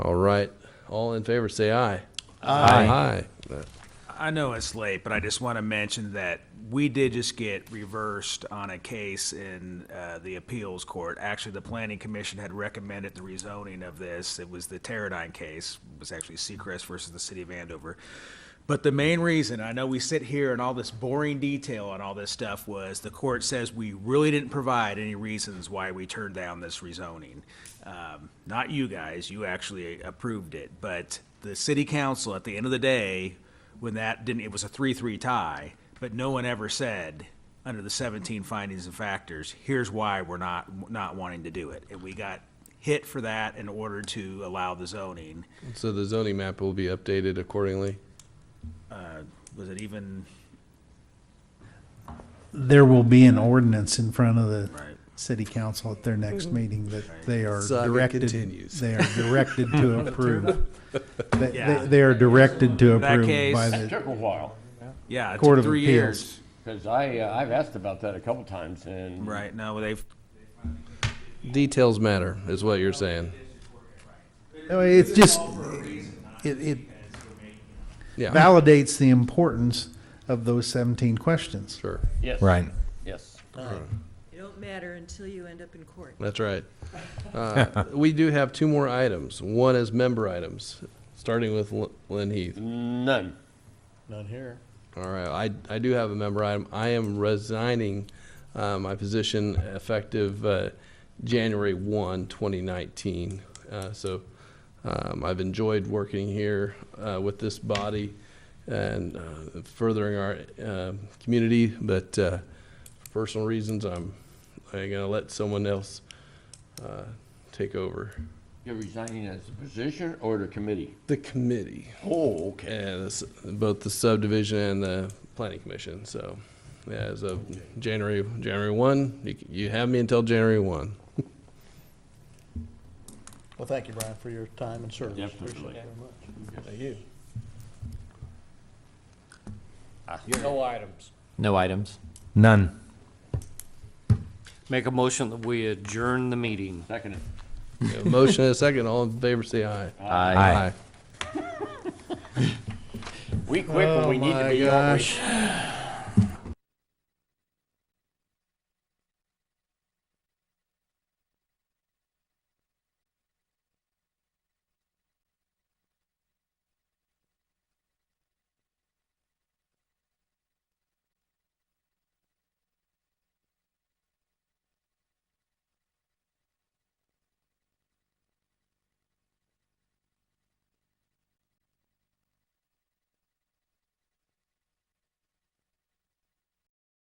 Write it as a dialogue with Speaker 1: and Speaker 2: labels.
Speaker 1: right. All in favor, say aye. Aye. Aye.
Speaker 2: I know it's late, but I just want to mention that we did just get reversed on a case in uh, the appeals court. Actually, the planning commission had recommended the rezoning of this. It was the Teradyne case, it was actually Seacrest versus the city of Andover. But the main reason, I know we sit here and all this boring detail on all this stuff was the court says we really didn't provide any reasons why we turned down this rezoning. Um, Not you guys, you actually approved it, but the city council, at the end of the day, when that didn't, it was a three-three tie, but no one ever said, under the seventeen findings and factors, here's why we're not, not wanting to do it. And we got hit for that in order to allow the zoning.
Speaker 1: So the zoning map will be updated accordingly.
Speaker 2: Was it even,
Speaker 3: There will be an ordinance in front of the
Speaker 2: Right.
Speaker 3: city council at their next meeting that they are
Speaker 1: Mm-hmm. Saga
Speaker 3: directed,
Speaker 1: continues.
Speaker 3: they are directed to approve. They-
Speaker 2: Yeah.
Speaker 3: They, they are directed to
Speaker 2: that
Speaker 3: approve
Speaker 2: case-
Speaker 3: by
Speaker 4: That
Speaker 3: the,
Speaker 4: took a while,
Speaker 2: yeah, it
Speaker 3: Court
Speaker 2: took
Speaker 3: of
Speaker 2: three
Speaker 3: Appeals.
Speaker 2: years.
Speaker 4: because I, uh, I've asked about that a couple times, and
Speaker 2: Right, no, they've,
Speaker 1: Details matter, is what you're saying.
Speaker 3: no, it's just, it, it
Speaker 1: Yeah,
Speaker 3: validates the importance of those seventeen questions.
Speaker 1: sure.
Speaker 4: yes.
Speaker 5: Right.
Speaker 4: Yes.
Speaker 6: It don't matter until you end up in court.
Speaker 1: That's right. Uh, We do have two more items. One is member items, starting with Lyn- Lynn Heath.
Speaker 4: None.
Speaker 1: All right, I, I do have a member item. I am resigning uh, my position effective uh, January 1, 2019. Uh, So um, I've enjoyed working here uh, with this body and uh, furthering our uh, community, but uh, for personal reasons, I'm, I'm going to let someone else uh, take over
Speaker 4: You're resigning as a position or the committee?
Speaker 1: the committee.
Speaker 4: Oh, okay.
Speaker 1: And it's both the subdivision and the planning commission, so, yeah, as of January, January one, you, c- you have me until January one.
Speaker 7: Well, thank you, Brian, for your time and service.
Speaker 4: Definitely.
Speaker 7: Appreciate it very much.
Speaker 8: No items.
Speaker 5: No items. None.
Speaker 8: Make a motion that we adjourn the meeting.
Speaker 4: Second.
Speaker 1: You have a Motion and a second, all in favor, say aye.
Speaker 5: Aye.
Speaker 8: Oh
Speaker 4: We quit when we need to be, do